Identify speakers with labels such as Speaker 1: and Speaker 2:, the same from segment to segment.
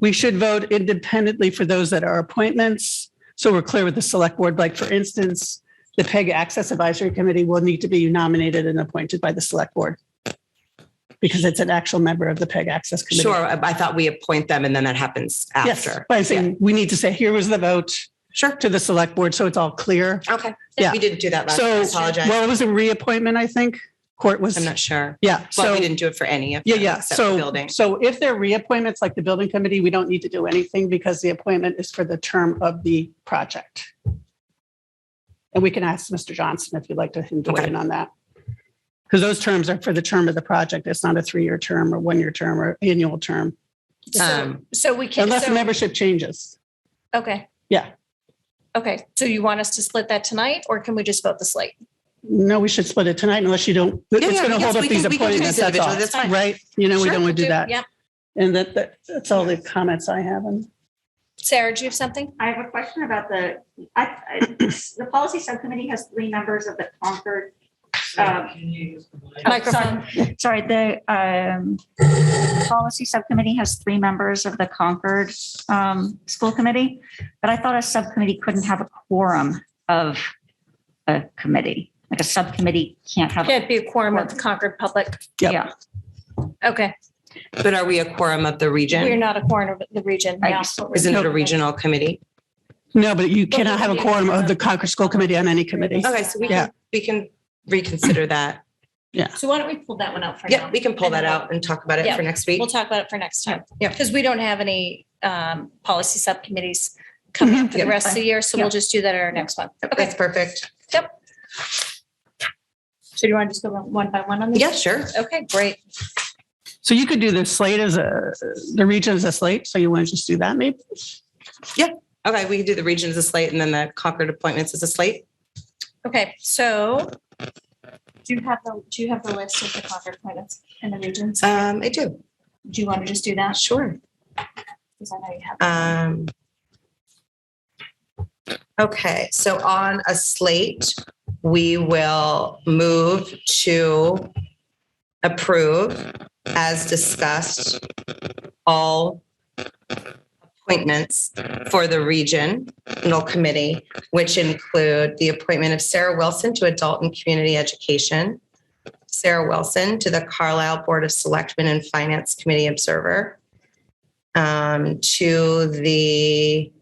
Speaker 1: We should vote independently for those that are appointments. So we're clear with the select board, like for instance, the PEG Access Advisory Committee will need to be nominated and appointed by the select board. Because it's an actual member of the PEG Access Committee.
Speaker 2: Sure, I I thought we appoint them and then that happens
Speaker 1: Yes,
Speaker 2: after.
Speaker 1: but I'm saying we need to say, here was the vote
Speaker 2: Sure.
Speaker 1: to the select board, so it's all clear.
Speaker 2: Okay.
Speaker 1: Yeah.
Speaker 2: We didn't do that last, time. I
Speaker 1: So,
Speaker 2: apologize.
Speaker 1: well, it was a reappointment, I think. Court was,
Speaker 2: I'm not sure.
Speaker 1: yeah,
Speaker 2: But
Speaker 1: so,
Speaker 2: we didn't do it for any of
Speaker 1: yeah,
Speaker 2: them
Speaker 1: yeah.
Speaker 2: except for
Speaker 1: So,
Speaker 2: building.
Speaker 1: so if they're reappointments like the building committee, we don't need to do anything because the appointment is for the term of the project. And we can ask Mr. Johnson if you'd like to him to weigh
Speaker 2: Okay.
Speaker 1: in on that. Because those terms are for the term of the project. It's not a three-year term or one-year term or annual term,
Speaker 3: So,
Speaker 2: Um,
Speaker 3: so we can,
Speaker 1: unless
Speaker 3: so-
Speaker 1: membership changes.
Speaker 3: okay.
Speaker 1: Yeah.
Speaker 3: Okay, so you want us to split that tonight, or can we just vote the slate?
Speaker 1: No, we should split it tonight unless you don't,
Speaker 2: Yeah,
Speaker 1: it's
Speaker 2: yeah,
Speaker 1: going to
Speaker 2: yes,
Speaker 1: hold up
Speaker 2: we can-
Speaker 1: these
Speaker 2: we can do
Speaker 1: appointments,
Speaker 2: these
Speaker 1: that's all,
Speaker 2: individually, that's fine.
Speaker 1: right? You know, we
Speaker 3: Sure,
Speaker 1: don't want to do that.
Speaker 3: Yeah.
Speaker 1: And that, that- that's all the comments I have. And
Speaker 3: Sarah, do you have something?
Speaker 4: I have a question about the, I, I, the policy subcommittee has three members of the Concord. um, oh,
Speaker 3: Microphone.
Speaker 4: sorry. Sorry, the, um, policy subcommittee has three members of the Concord, um, school committee. But I thought a subcommittee couldn't have a quorum of a committee, like a subcommittee can't have.
Speaker 3: Can't be a quorum of the Concord public.
Speaker 1: Yep.
Speaker 4: Yeah,
Speaker 3: Okay,
Speaker 2: But are we a quorum of the
Speaker 3: we're
Speaker 2: region?
Speaker 3: not a quorum of the region.
Speaker 4: I
Speaker 3: yeah.
Speaker 4: used to-
Speaker 2: Isn't it a
Speaker 3: Nope.
Speaker 2: regional committee?
Speaker 1: No, but you
Speaker 3: But
Speaker 1: cannot have a
Speaker 3: we-
Speaker 1: quorum of the Concord School Committee on any committee.
Speaker 2: Okay, so we
Speaker 1: Yeah.
Speaker 2: can, we can reconsider that.
Speaker 3: So why don't we pull that one out for now?
Speaker 2: Yeah, we can pull that out and talk about it
Speaker 3: Yeah.
Speaker 2: for next week.
Speaker 3: We'll talk about it for next time.
Speaker 2: Yeah.
Speaker 3: Because we don't have any um, policy subcommittees coming up for the
Speaker 4: Yeah.
Speaker 3: rest of the year, so we'll
Speaker 4: Yeah.
Speaker 3: just do that at our next one. Okay,
Speaker 2: That's perfect.
Speaker 3: so do you want to just go one by one on this?
Speaker 2: Yeah, sure.
Speaker 3: Okay, great.
Speaker 1: So you could do the slate as a, the region as a slate. So you want to just do that maybe?
Speaker 2: Okay, we can do the region as a slate and then the Concord appointments as a slate.
Speaker 3: Okay, so do you have the, do you have the list of the Concord appointments and the regions?
Speaker 2: Um, I do.
Speaker 3: Do you want to just do that?
Speaker 2: Sure.
Speaker 3: Because I know you have.
Speaker 2: Um, okay, so on a slate, we will move to approve as discussed all appointments for the regional committee, which include the appointment of Sarah Wilson to Adult and Community Education, Sarah Wilson to the Carlisle Board of Selectmen and Finance Committee Observer, um, to the,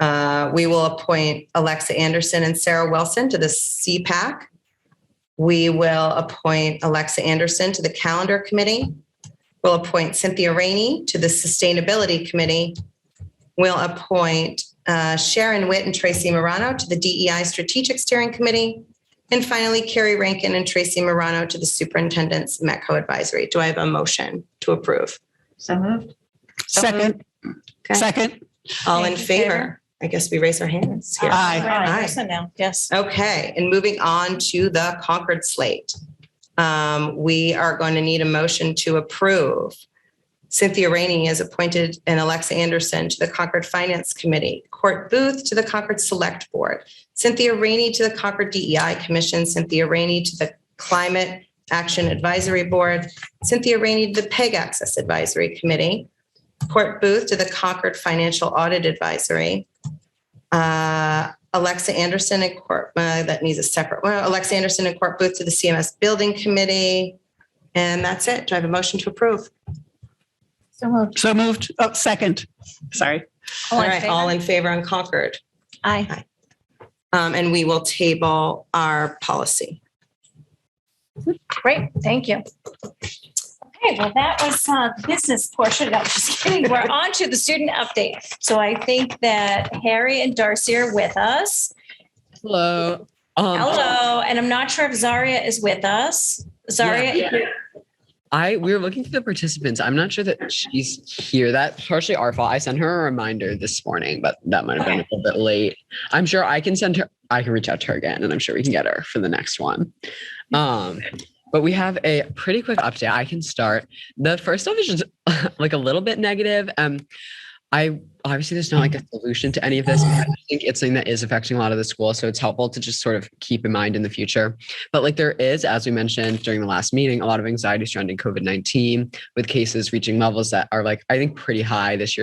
Speaker 2: uh, we will appoint Alexa Anderson and Sarah Wilson to the CPAC. We will appoint Alexa Anderson to the Calendar Committee. We'll appoint Cynthia Rainey to the Sustainability Committee. We'll appoint uh, Sharon Witt and Tracy Morano to the DEI Strategic Steering Committee. And finally, Carrie Rankin and Tracy Morano to the Superintendent's Metco Advisory. Do I have a motion to approve?
Speaker 4: so moved.
Speaker 1: Second,
Speaker 2: Okay.
Speaker 1: second,
Speaker 2: All
Speaker 3: All
Speaker 2: in
Speaker 3: in favor?
Speaker 2: favor? I guess we raise our hands here.
Speaker 1: Aye.
Speaker 2: Aye.
Speaker 3: So now, yes.
Speaker 2: Okay, and moving on to the Concord slate. Um, we are going to need a motion to approve. Cynthia Rainey is appointed and Alexa Anderson to the Concord Finance Committee, Court Booth to the Concord Select Board, Cynthia Rainey to the Concord DEI Commission, Cynthia Rainey to the Climate Action Advisory Board, Cynthia Rainey to the PEG Access Advisory Committee, Court Booth to the Concord Financial Audit Advisory. Uh, Alexa Anderson and Court, uh, that needs a separate, well, Alexa Anderson and Court Booth to the CMS Building Committee. And that's it. Do I have a motion to approve?
Speaker 3: So moved.
Speaker 1: so moved, oh, second, sorry.
Speaker 3: All
Speaker 2: All
Speaker 3: in
Speaker 2: right, all
Speaker 3: favor?
Speaker 2: in favor on Concord.
Speaker 3: Aye.
Speaker 2: Um, and we will table our policy.
Speaker 3: Great, thank you. Okay, well, that was uh, the business portion. No, just kidding. We're on to the student update. So I think that Harry and Darcy are with us.
Speaker 5: Hello. Um,
Speaker 3: Hello, and I'm not sure if Zaria is with us. Zaria,
Speaker 5: I we were looking through the participants. I'm not sure that she's here. That's partially our fault. I sent her a reminder this morning, but that might have been a little bit late. I'm sure I can send her. I can reach out to her again, and I'm sure we can get her for the next one. Um, but we have a pretty quick update. I can start. The first stuff is just like a little bit negative. Um, I obviously there's not like a solution to any of this. But I think it's something that is affecting a lot of the school, so it's helpful to just sort of keep in mind in the future. But like there is, as we mentioned during the last meeting, a lot of anxiety surrounding COVID 19 with cases reaching levels that are like, I think, pretty high this year.